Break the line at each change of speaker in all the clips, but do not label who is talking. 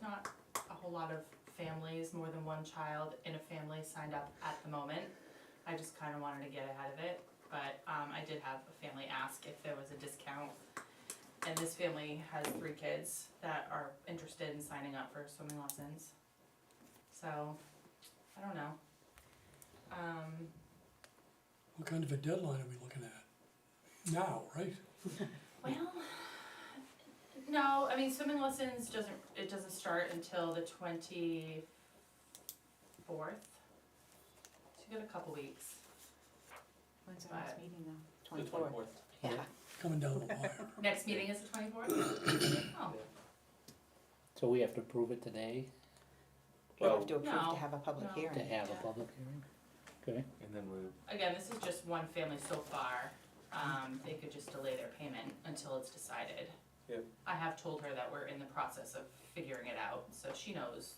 not a whole lot of families, more than one child in a family signed up at the moment. I just kinda wanted to get ahead of it, but, um, I did have a family ask if there was a discount. And this family has three kids that are interested in signing up for swimming lessons. So, I don't know. Um,
What kind of a deadline are we looking at? Now, right?
Well, no, I mean swimming lessons doesn't it doesn't start until the twenty fourth. So you got a couple weeks.
When's
our next
meeting though?
The twenty-fourth.
Yeah,
Coming down the wire.
Next meeting is the twenty fourth? Oh,
So we have to prove it today
we
Well,
have to approve
No.
to have a public
No.
to
hearing.
have a
Yeah.
public hearing? Okay,
and then we,
again, this is just one family so far. Um, they could just delay their payment until it's decided.
Yep.
I have told her that we're in the process of figuring it out, so she knows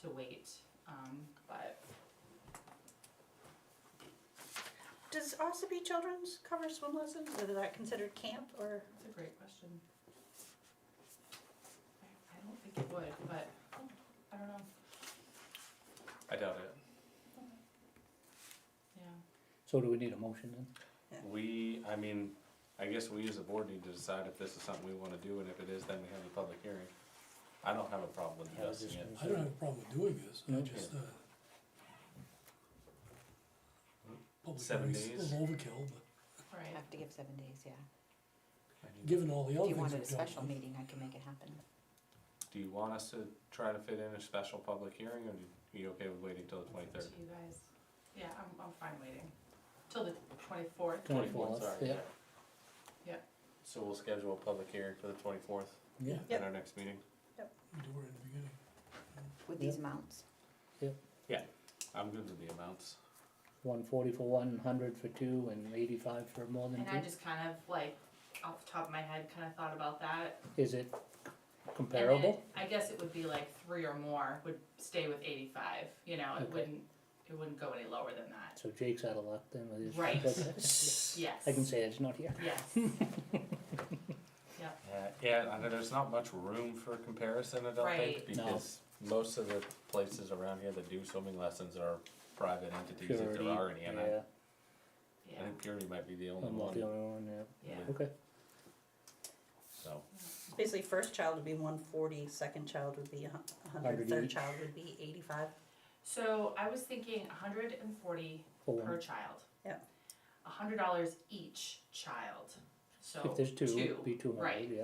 to wait, um, but
Does Ossipee Children's cover swim lessons, or is that considered camp, or?
That's a great question. I I don't think it would, but I don't know,
I doubt it.
yeah.
so do we need a motion then?
We, I mean, I guess we as a board need to decide if this is something we wanna do, and if it is, then we have a public hearing. I don't have a problem with
Yeah, I was
addressing
just
it.
I don't have a problem with doing this, I
No.
just, uh. Public
Seven
hearing's
days.
A little overkill, but
Right,
Have to give seven days, yeah.
given all the
If
other
you
things
wanted a
we've done.
special meeting, I can make it happen.
Do you want us to try to fit in a special public hearing, or are you okay with waiting till the
to
twenty-third?
you guys, yeah, I'm, I'm fine waiting, till the twenty-fourth.
24th, yeah.
Yeah.
So we'll schedule a public hearing for the twenty-fourth
Yeah,
Yep.
at our next meeting.
We do it in the beginning.
With
Yeah.
these amounts,
I'm good with the amounts.
one forty for one, hundred for two, and eighty-five for more than
And I
two.
just kind of like, off the top of my head, kind of thought about that.
Is it
and then
comparable?
I guess it would be like three or more would stay with eighty-five, you know, it
Okay.
wouldn't, it wouldn't go any lower than that,
So Jake's out of luck then with his.
Right.
Right.
yes.
I can say it's not here.
Yes,
Yeah, Uh, yeah, I know there's not much room for comparison, I don't think,
Right.
No.
because most of the places around here that do swimming lessons are private entities if
Purity,
there are any, and I,
yeah,
yeah,
I think Purity might be the only
I'm not the
one,
only one, yeah,
yeah,
okay,
so.
basically, first child would be one forty, second child would be a hun- a hundred,
Hundred
third
each.
child would be eighty-five.
so I was thinking hundred and forty
for
per
one,
child.
Yep.
A hundred dollars each child, so.
if there's two,
two,
it'd be two hundred,
right.
yeah.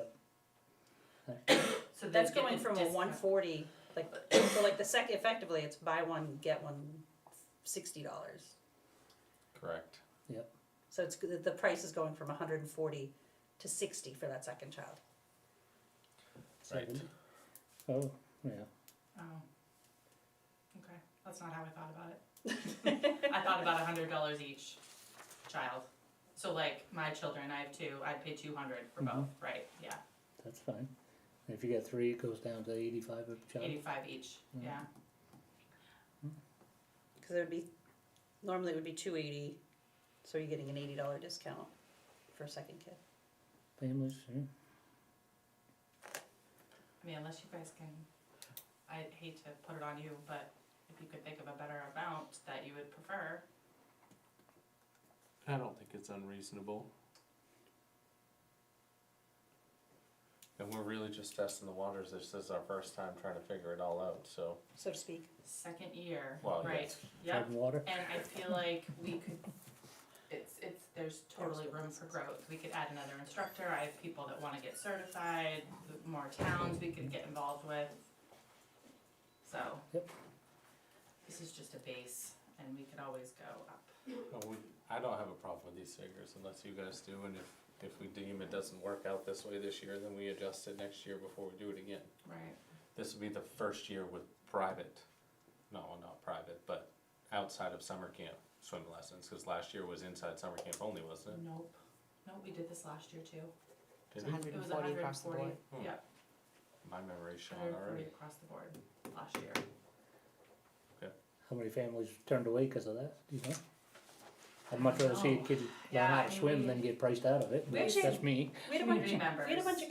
So they'd
That's
get
going
the
from a
discount.
one forty, like, so like the second, effectively, it's buy one, get one sixty dollars.
Correct.
So it's, the the price is going from hundred and forty to sixty for that second child.
Right.
70. Oh, yeah,
Oh. Okay, that's not how I thought about it. I thought about a hundred dollars each child. So like my children, I have two, I'd pay two hundred for both,
Mm-hmm.
right, yeah,
that's fine. And If you get three, it goes down to eighty-five a child.
eighty-five each,
Mhm.
yeah,
Because it would be, normally it would be two eighty, so you're getting an eighty dollar discount for a second kid.
Families, yeah.
I mean, unless you guys can, I hate to put it on you, but if you could think of a better amount that you would prefer,
I don't think it's unreasonable. And we're really just testing the waters, this is our first time trying to figure it all out, so,
So to speak.
second year,
Well,
right,
yes.
yep.
Treading water.
And I feel like we could, it's, it's, there's totally room for growth. We could add another instructor. I have people that wanna get certified, more towns we could get involved with. So.
Yep.
This is just a base and we could always go up.
Uh, we- I don't have a problem with these figures unless you guys do, and if, if we deem it doesn't work out this way this year, then we adjust it next year before we do it again.
Right.
This would be the first year with private, no, not private, but outside of summer camp swim lessons, cause last year was inside summer camp only, wasn't it?
Nope. Nope, we did this last year too.
Did we?
hundred
It was hundred and forty,
Hmm.
yeah,
My memory's shot
hundred and forty
already.
across the board last year.
How many families turned away because of that, do you know? I'd much rather see a
Oh,
kid learn
yeah,
how
I
to
mean,
swim
we-
than get priced out of it,
We
but
actually-
that's me.
We had a bunch,
Community
we had a bunch
members.
of